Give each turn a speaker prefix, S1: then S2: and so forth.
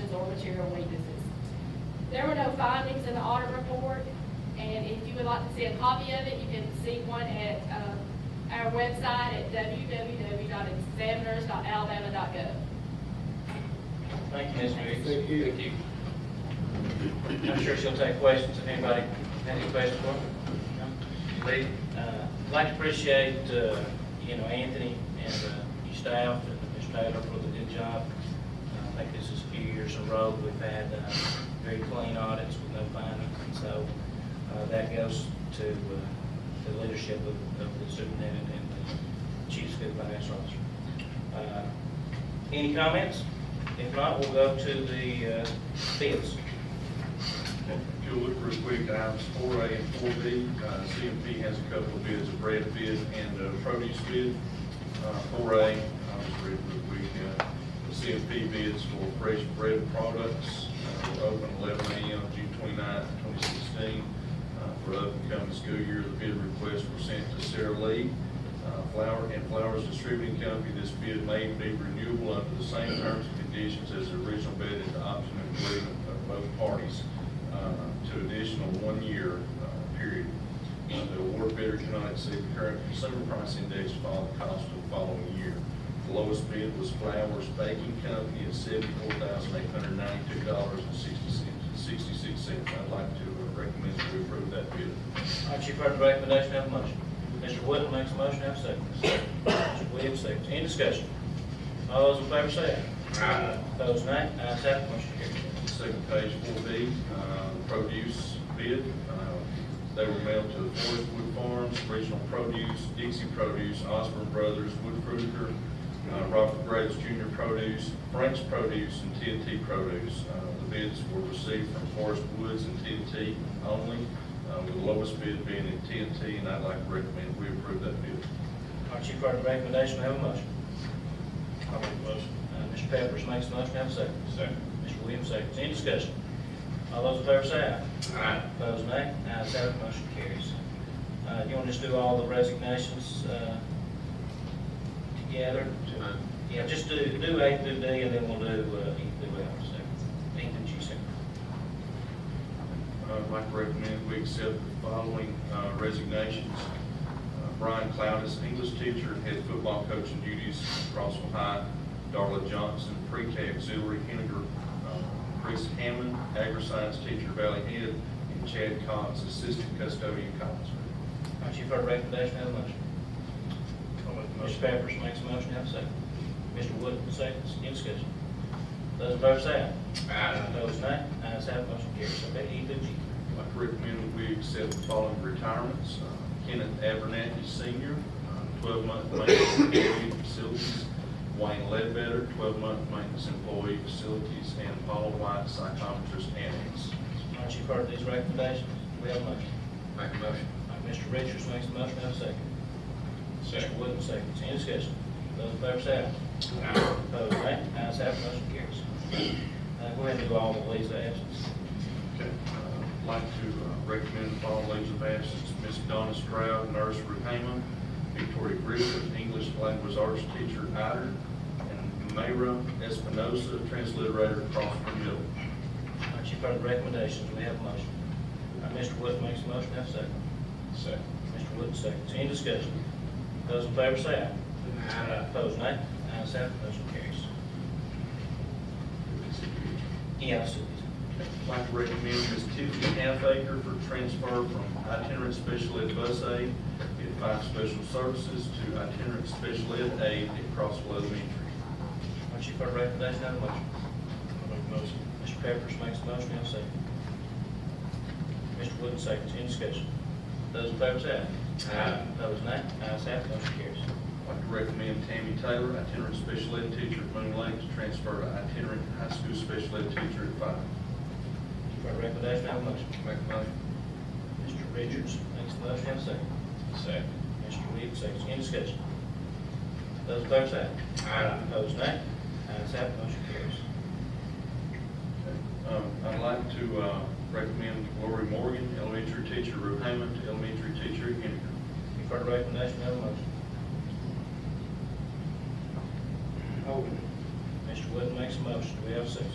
S1: material weaknesses. There were no findings in the audit report, and if you would like to see a copy of it, you can see one at, uh, our website at www.examiners.alabama.gov.
S2: Thank you, Ms. Meeks.
S3: Thank you.
S2: I'm sure she'll take questions if anybody has any questions for her. Lee, uh, I'd like to appreciate, uh, you know, Anthony and uh, your staff and Mr. Taylor for the good job. Uh, I think this is a few years in a row we've had uh, very clean audits with no findings. And so uh, that goes to uh, the leadership of of the superintendent and the chief school financial officer. Uh, any comments? If not, we'll go to the uh, bids.
S4: If you'll look real quick, items four A and four B, Uh, CMP has a couple of bids, a bread bid and a produce bid. Uh, Four A, I'll just read real quick, uh, the CMP bids for fresh bread products uh, were open eleven AM, June 29th, twenty sixteen. Uh, For upcoming school year, the bid requests were sent to Sarah Lee uh, Flower and Flowers Distributing Company. This bid may be renewable under the same terms and conditions as the original bid at the option of agreement of both parties uh, to additional one-year uh, period. Uh, The award bidder cannot exceed the current consumer price index for all the costs of the following year. The lowest bid was Flowers Baking Company at seventy-four thousand eight hundred ninety-two dollars and sixty-six cents. I'd like to uh, recommend that we approve that bid.
S2: All right, you've heard the recommendation, have a motion. Mr. Wood makes a motion, have a second. Mr. Williams, second. Any discussion? All those in favor say aye. Aye. Those nay, ayes have, it, motion carries.
S4: Second page, four B, uh, produce bid. Uh, They were mailed to Forest Wood Farms, Regional Produce, Dixie Produce, Osborne Brothers, Wood Fruiter, uh, Robert Graves Junior Produce, Frank's Produce, and TNT Produce. Uh, The bids were received from Forest Woods and TNT only, uh, with the lowest bid being at TNT, and I'd like to recommend we approve that bid.
S2: All right, you've heard the recommendation, have a motion. I'll make a motion. Mr. Pepperidge makes a motion, have a second.
S4: Second.
S2: Mr. Williams, second. Any discussion? All those in favor say aye.
S4: Aye.
S2: Opposed, nay. Ayes have, it, motion carries. Uh, you want to just do all the resignations, uh, together? Yeah, just do, do A through D, and then we'll do, uh, E through F, so, E through G, so.
S4: I'd like to recommend Uh, we accept the following uh, resignations. Uh, Brian Cloudis, English teacher, head football coaching duties, Crossville High. Darla Johnson, pre-K auxiliary, Henninger. uh, Chris Hammond, agri-science teacher, Valley Head. And Chad Cox, assistant custodian, Collinsville.
S2: All right, you've heard the recommendation, have a motion. Mr. Pepperidge makes a motion, have a second. Mr. Wood, seconds, any discussion? Those in favor say aye. Aye. Opposed, nay. Ayes have, it, motion carries. So, be E through G.
S4: I'd like to recommend that we accept the following retirements. Uh, Kenneth Abernathy Senior, uh, twelve-month maintenance employee facilities. Wayne Ledbetter, twelve-month maintenance employee facilities, and Paul White, psychometrist annex.
S2: All right, you've heard these recommendations, do we have a motion?
S4: Make a motion.
S2: All right, Mr. Richards makes a motion, have a second. Mr. Wood, seconds, any discussion? Those in favor say aye. Aye. Opposed, nay. Ayes have, it, motion carries. Uh, go ahead and do all the leaves of absence.
S4: Okay. Uh, I'd like to uh, recommend the following leaves of absence. Ms. Donna Stroud, nurse, Ruhama. Victoria Griffith, English language arts teacher, Ider. And Mayra Espinosa, transliterator, Crossville Middle.
S2: All right, you've heard the recommendations, do we have a motion? All right, Mr. Wood makes a motion, have a second.
S4: Second.
S2: Mr. Wood seconds, any discussion? Those in favor say aye. Aye. Opposed, nay. Ayes have, it, motion carries. Yeah, I see these.
S4: I'd like to recommend Ms. Tiffany Halfaker for transfer from itinerant special ed bus aide at Five Special Services to itinerant special ed aide at Crossville Elementary.
S2: All right, you've heard the recommendation, have a motion. I'll make a motion. Mr. Pepperidge makes a motion, have a second. Mr. Wood seconds, any discussion? Those in favor say aye. Aye. Opposed, nay. Ayes have, it, motion carries.
S4: I'd like to recommend Tammy Taylor, itinerant special ed teacher at Moon Lake, to transfer to itinerant high school special ed teacher at Five.
S2: You've heard the recommendation, have a motion.
S4: Make a motion.
S2: Mr. Richards makes a motion, have a second.
S4: Second.
S2: Mr. Williams, seconds, any discussion? Those in favor say aye. Aye. Opposed, nay. Ayes have, it, motion carries.
S4: Um, I'd like to, uh, recommend Lori Morgan, elementary teacher, Ruhaman, to elementary teacher at Henninger.
S2: You've heard the recommendation, have a motion. Mr. Wood makes a motion, do we have a second?